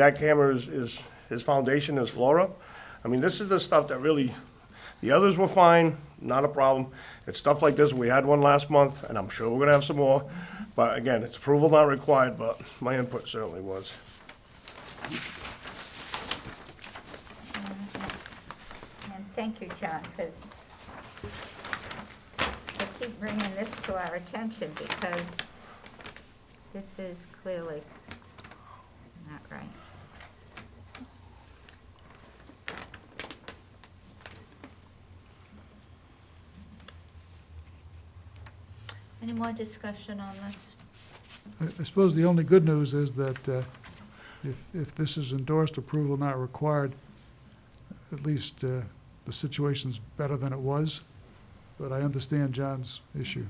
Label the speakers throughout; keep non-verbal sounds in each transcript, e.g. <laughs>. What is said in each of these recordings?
Speaker 1: Jackhammer is, is, his foundation is flora. I mean, this is the stuff that really, the others were fine, not a problem. It's stuff like this, we had one last month, and I'm sure we're gonna have some more. But again, it's approval not required, but my input certainly was.
Speaker 2: And thank you, John, for, for keep bringing this to our attention because this is clearly not right. Any more discussion on this?
Speaker 3: I I suppose the only good news is that uh, if, if this is endorsed, approval not required, at least uh, the situation's better than it was, but I understand John's issue.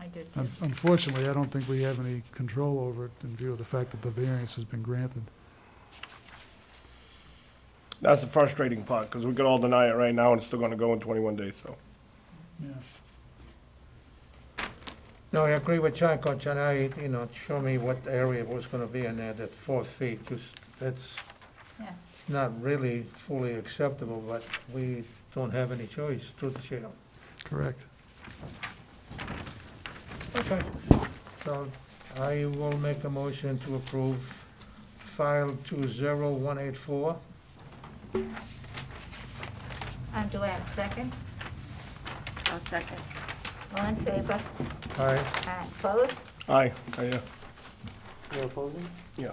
Speaker 2: I do too.
Speaker 3: Un- Unfortunately, I don't think we have any control over it in view of the fact that the variance has been granted.
Speaker 1: That's the frustrating part, because we could all deny it right now, and it's still gonna go in twenty-one days, so.
Speaker 4: No, I agree with John, Conchan, I, you know, show me what area was gonna be in there, that four feet, just, that's
Speaker 2: Yeah.
Speaker 4: not really fully acceptable, but we don't have any choice, truth to tell.
Speaker 3: Correct.
Speaker 4: Okay. So I will make a motion to approve file two zero one eight four.
Speaker 2: Um, do I have a second?
Speaker 5: I'll second.
Speaker 2: All in favor?
Speaker 4: Aye.
Speaker 2: Aye. Opposed?
Speaker 1: Aye, I, uh,
Speaker 4: You're opposing?
Speaker 1: yeah.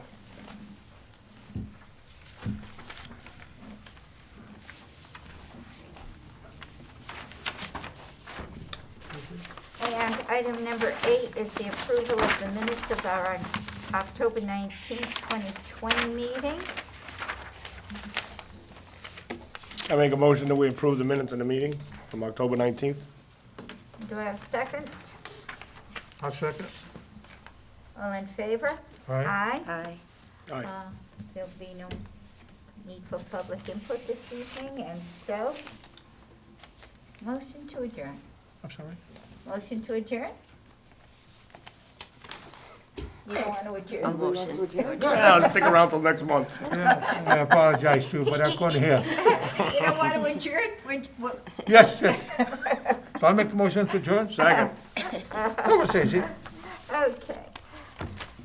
Speaker 2: And item number eight is the approval of the minutes of our October 19th, 2020 meeting.
Speaker 1: I make a motion that we approve the minutes in the meeting from October nineteenth.
Speaker 2: Do I have a second?
Speaker 4: i second.
Speaker 2: All in favor?
Speaker 4: Aye.
Speaker 5: Aye.
Speaker 1: Aye.
Speaker 2: Uh, There'll be no need for public input this evening, and so, motion to adjourn.
Speaker 4: I'm sorry?
Speaker 2: Motion to adjourn? You don't want to adjourn?
Speaker 5: A motion to adjourn.
Speaker 1: Yeah, <laughs> I'll stick around till next month.
Speaker 4: I apologize too, but I couldn't hear.
Speaker 2: You don't want to adjourn?
Speaker 5: Would- would-
Speaker 4: <laughs> Yes, yes. So I make a motion to adjourn?
Speaker 1: Second.
Speaker 4: Conversation.